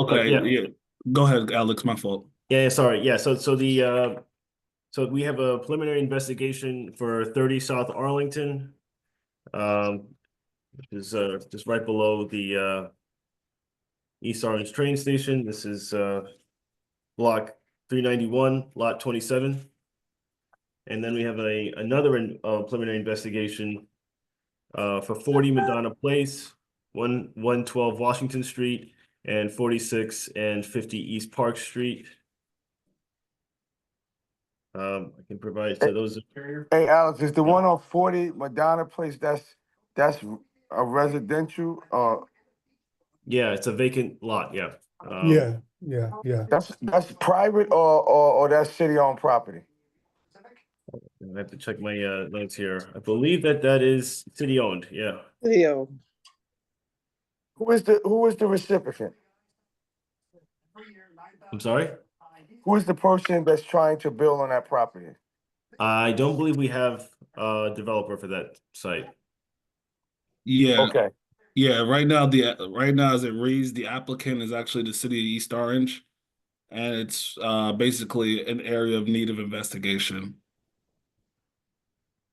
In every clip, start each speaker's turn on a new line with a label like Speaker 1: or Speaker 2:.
Speaker 1: Okay,
Speaker 2: yeah.
Speaker 1: yeah. Go ahead, Alex. My fault.
Speaker 2: Yeah, yeah, sorry. Yeah, so so the uh so we have a preliminary investigation for 30 South Arlington. Um which is uh just right below the uh East Orange train station. This is uh block 391, lot 27. And then we have a another in- uh, preliminary investigation uh for 40 Madonna Place, 1 112 Washington Street, and 46 and 50 East Park Street. Um, I can provide, so those are,
Speaker 3: Hey, Alex, is the
Speaker 2: Yeah.
Speaker 3: one on forty Madonna Place, that's, that's a residential, uh,
Speaker 2: yeah, it's a vacant lot, yeah. Um,
Speaker 4: Yeah, yeah, yeah.
Speaker 3: that's, that's private or, or, or that's city-owned property?
Speaker 2: I have to check my uh notes here. I believe that that is city owned, yeah.
Speaker 5: Leo,
Speaker 3: Who is the, who is the recipient?
Speaker 2: I'm sorry?
Speaker 3: Who is the person that's trying to build on that property?
Speaker 2: I don't believe we have a developer for that site.
Speaker 1: Yeah,
Speaker 3: Okay,
Speaker 1: yeah. Right now, the right now as it reads, the applicant is actually the city of East Orange, and it's uh, basically an area of need of investigation.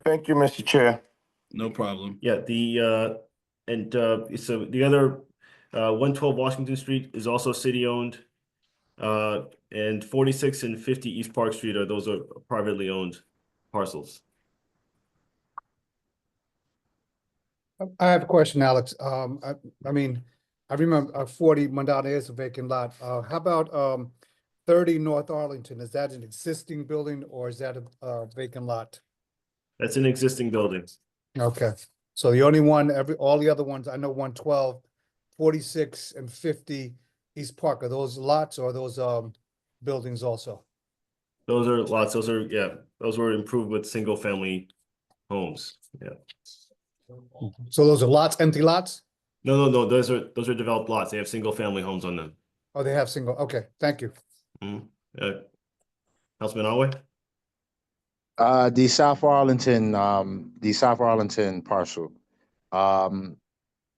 Speaker 3: thank you, Mr. Chair.
Speaker 1: No problem.
Speaker 2: Yeah, the uh, and uh, so the other uh, one twelve Washington Street is also city owned. Uh, and forty six and fifty East Park Street are those are privately owned parcels.
Speaker 4: I have a question, Alex. Um, I, I mean, I remember uh, forty Madonna is a vacant lot. Uh, how about, um, thirty North Arlington? Is that an existing building or is that a, uh vacant lot?
Speaker 2: That's an existing building.
Speaker 4: Okay, so the only one, every, all the other ones, I know 112, 46, and fifty East Park, are those lots or are those, um, buildings also?
Speaker 2: Those are lots. Those are yeah. Those were improved with single family homes. Yeah.
Speaker 4: So those are lots, empty lots?
Speaker 2: No, no, no. Those are those are developed lots. They have single family homes on them.
Speaker 4: Oh, they have single, okay, thank you.
Speaker 2: Uh, Councilman Alway.
Speaker 6: Uh, the South Arlington, um, the South Arlington parcel, um,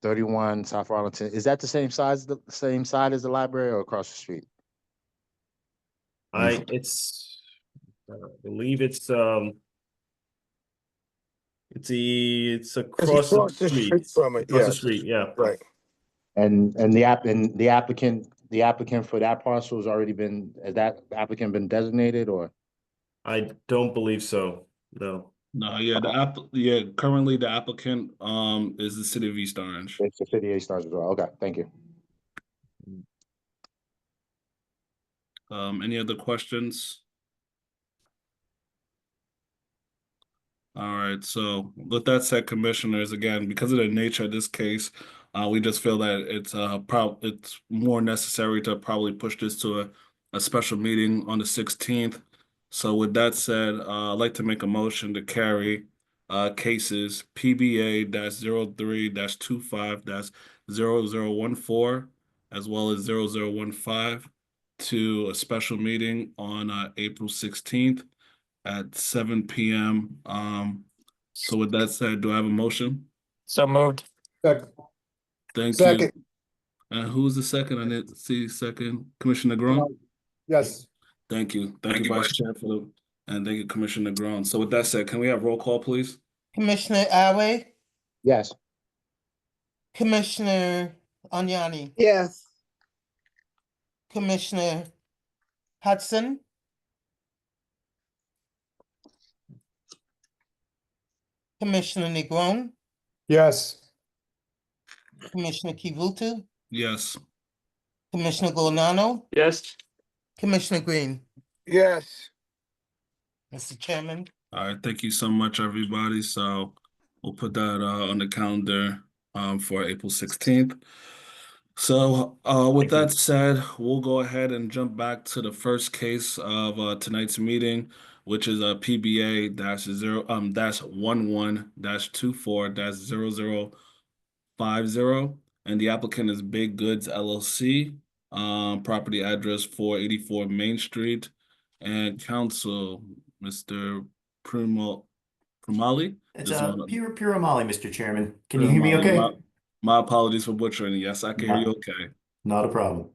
Speaker 6: thirty-one South Arlington, is that the same size, the same side as the library or across the street?
Speaker 2: I, it's, I believe it's, um, it's the, it's
Speaker 3: It's
Speaker 2: across the street,
Speaker 3: From it,
Speaker 2: across the
Speaker 3: yes.
Speaker 2: street, yeah.
Speaker 3: Right,
Speaker 6: And, and the app, and the applicant, the applicant for that parcel has already been, has that applicant been designated or?
Speaker 2: I don't believe so, no.
Speaker 1: No, yeah. The app, yeah. Currently, the applicant um is the city of East Orange.
Speaker 6: It's the city of Stars as well. Okay, thank you.
Speaker 1: Um, any other questions? All right, so with that said, commissioners, again, because of the nature of this case, uh, we just feel that it's uh prob it's more necessary to probably push this to a, a special meeting on the sixteenth. So with that said, uh, I'd like to make a motion to carry uh cases PBA dash zero three dash two five dash zero zero one four as well as zero zero one five to a special meeting on uh, April 16th at 7 p.m. Um, so with that said, do I have a motion?
Speaker 7: So moved.
Speaker 4: Second.
Speaker 1: Thank
Speaker 4: Second.
Speaker 1: you. And who's the second? I didn't see second. Commissioner Negron?
Speaker 4: Yes,
Speaker 1: Thank you. Thank, you, Vice Chair, for the, and thank you, Commissioner Negron. So with that said, can we have roll call, please?
Speaker 8: Commissioner Awe,
Speaker 6: Yes.
Speaker 8: Commissioner Agnani,
Speaker 5: yes.
Speaker 8: Commissioner Hudson, Commissioner Negron,
Speaker 4: yes.
Speaker 8: Commissioner Kivutu,
Speaker 1: Yes.
Speaker 8: Commissioner Gonano,
Speaker 7: Yes.
Speaker 8: Commissioner Green.
Speaker 3: yes.
Speaker 8: Mr. Chairman,
Speaker 1: All right. Thank you so much, everybody. So we'll put that uh, on the calendar um, for April 16th. So uh, with
Speaker 2: Thank
Speaker 1: that said, we'll go ahead and jump back to the first case of uh, tonight's meeting, which is a PBA dash zero um dash one one dash two four dash zero zero five zero, and the applicant is Big Goods LLC, um, property address four eighty four Main Street, and counsel Mr. Primo Primali.
Speaker 9: It's
Speaker 1: Just
Speaker 9: uh,
Speaker 1: wanna-
Speaker 9: Pira Piramali, Mr. Chairman. Can you hear me
Speaker 1: Primali.
Speaker 9: okay?
Speaker 1: My- My apologies for butchering. Yes, I can hear you. Okay.
Speaker 9: Not a problem.